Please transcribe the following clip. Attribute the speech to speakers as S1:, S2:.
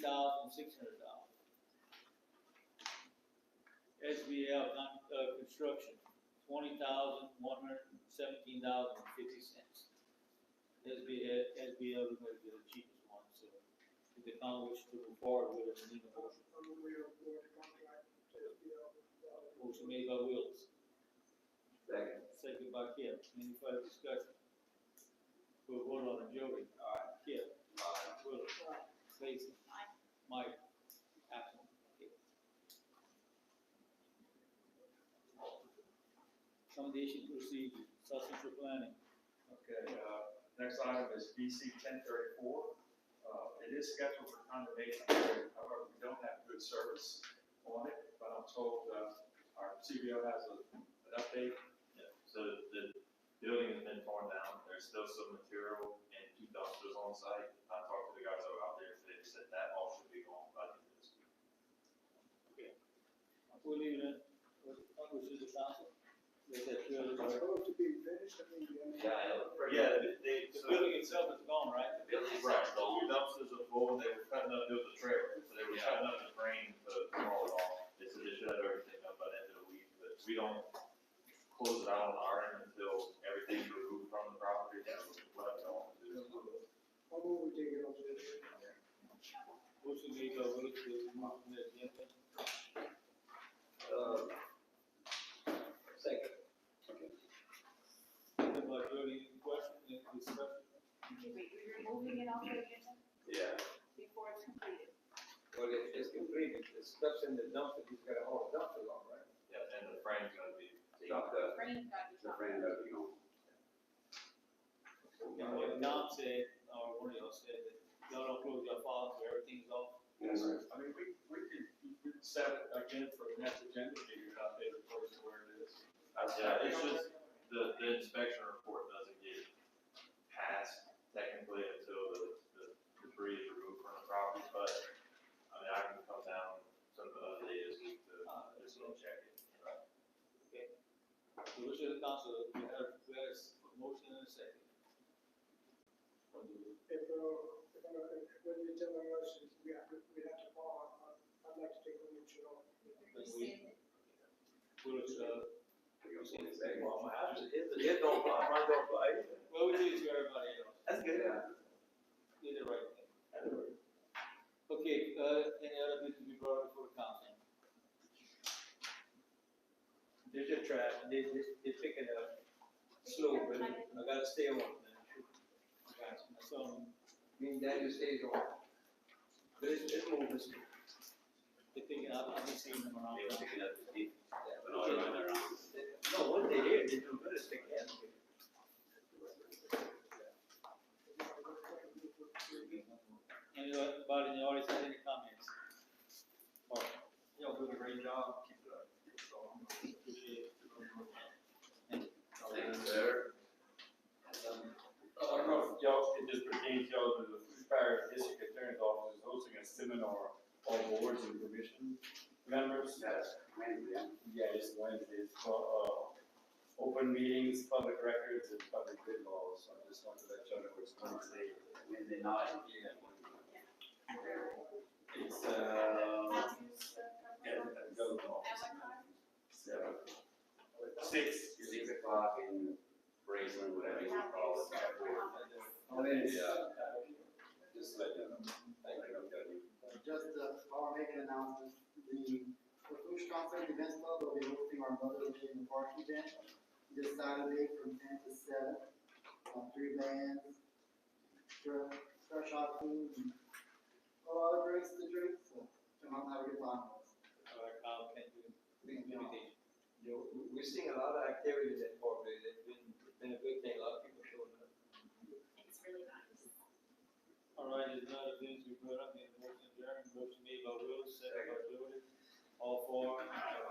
S1: six hundred dollars. SBL, con- uh, construction, twenty thousand, one hundred and seventeen dollars and fifty cents. SBL, SBL is gonna be the cheapest one, so if they found which to move forward with, it, we need a motion. Motion made by Wills,
S2: Second.
S1: second by Kip, any further discussion? We'll vote on it, Jody. Aye. Kip. Aye. Wills. Lacy. Mike. Absent. Okay. Accommodation procedure, substantial planning.
S3: Okay, uh, next item is BC ten thirty-four. Uh, it is scheduled for condemnation, however, we don't have good service on it, but I'm told, uh, our CBO has a, an update.
S4: Yeah, so the building has been torn down, there's still some material and two dumpsters on site. I talked to the guys that were out there, today. they said that all should be gone by the end of this week.
S1: We'll leave it in, what, what was it, the council? Let that building-
S5: Supposed to be finished, I mean, you know.
S2: Yeah, it looked pretty.
S4: Yeah, they- they,
S1: The
S4: so-
S1: building itself is gone, right?
S2: The building
S4: Right,
S2: itself is
S4: the
S2: gone.
S4: two dumpsters are full, they were cutting up, there was a trailer, so they were cutting up the frame to haul it off. They said they should have everything up by the end of the week, but we don't close it out on our end until everything's removed from the property, that's what I want to do.
S5: How will we take it off the?
S1: Motion made by Willis, to remove from the agenda.
S2: Uh, Second.
S1: Second by Jody, any questions, any discussion?
S6: Wait, you're removing it off the agenda
S2: Yeah.
S6: before it's completed?
S2: Well, it- it's completed, the stuff's in the dumpster, he's got all the dumpsters on, right?
S4: Yeah, and the frame's gonna be
S2: Dumped up.
S6: Frank got the
S2: It's a
S6: top.
S2: brand new, you know.
S1: And what Don said, or one of y'all said, that y'all don't close your files, so everything's off.
S2: Yes, sir.
S3: I mean, we, we could, we could set it again for the next agenda meeting, and update it close to where it is.
S4: Yeah, it's just, the, the inspection report doesn't get passed technically until the, the debris is removed from the property, but, I mean, I can come down some other day this week to, just go check it.
S1: The wish of the council, we had, we had a s- motion and a second.
S5: If, uh, if, uh, when you tell us, we have, to- we have to follow, I'd- I'd like to take a motion on.
S6: Rescind it.
S1: Willis, uh,
S2: You know, it's like, well, my house is- it's- it don't fly, mine don't fly.
S1: well, we did it to everybody else,
S2: That's good. Yeah.
S1: did the right thing. Okay, uh, any other business to be brought before the council?
S2: They're just trying, they, they, they picking up slow, but I gotta stay on that.
S1: Okay, So,
S2: Mean that just stays on. But it's, it's moving slow.
S1: they're picking up, I've been seeing them around.
S7: They were picking up the deep,
S2: Yeah,
S7: but all around their own.
S2: No, what they did, they do good as they can. uh,
S1: Anybody in the audience have any comments? Or,
S2: Y'all doing a great
S3: Um,
S2: job, keep it up.
S1: appreciate it. Thank you.
S7: Thank you, sir.
S3: I don't know if y'all, it just pertains to y'all, but the Food Fire District Attorney's Office is hosting a seminar on boards and commission members.
S7: Yes, many, yeah.
S3: Yeah, it's Wednesday, it's for, uh, open meetings, public records, and public good laws, so I just wanted to let y'all know what's going on.
S7: Wednesday night.
S6: Where-
S7: It's, uh,
S3: Yeah, and go
S6: At
S3: laws.
S6: what time?
S7: seven,
S3: Six.
S7: six o'clock in Braceland, whatever you call it.
S2: Oh, then, yeah,
S7: Just let them, thank you, I'm done.
S8: Just uh, I'll make an announcement, the Bush Council Events Club will be hosting our Mother Day in the Park event this Saturday from ten to seven. Uh, Three bands, fresh, fresh hot food, and a lot of drinks to drink, so come out and have a good time.
S1: All right, Kyle, thank you.
S8: Thank you.
S1: Invitation.
S2: you know, we- we're seeing a lot of activities at Fort Lee, it's been, it's been a good thing, a lot of people showing up.
S6: It's really nice.
S1: All right, there's none of things we brought up, in the motion adjourned, motion made by Will, second by Jody. All four, uh,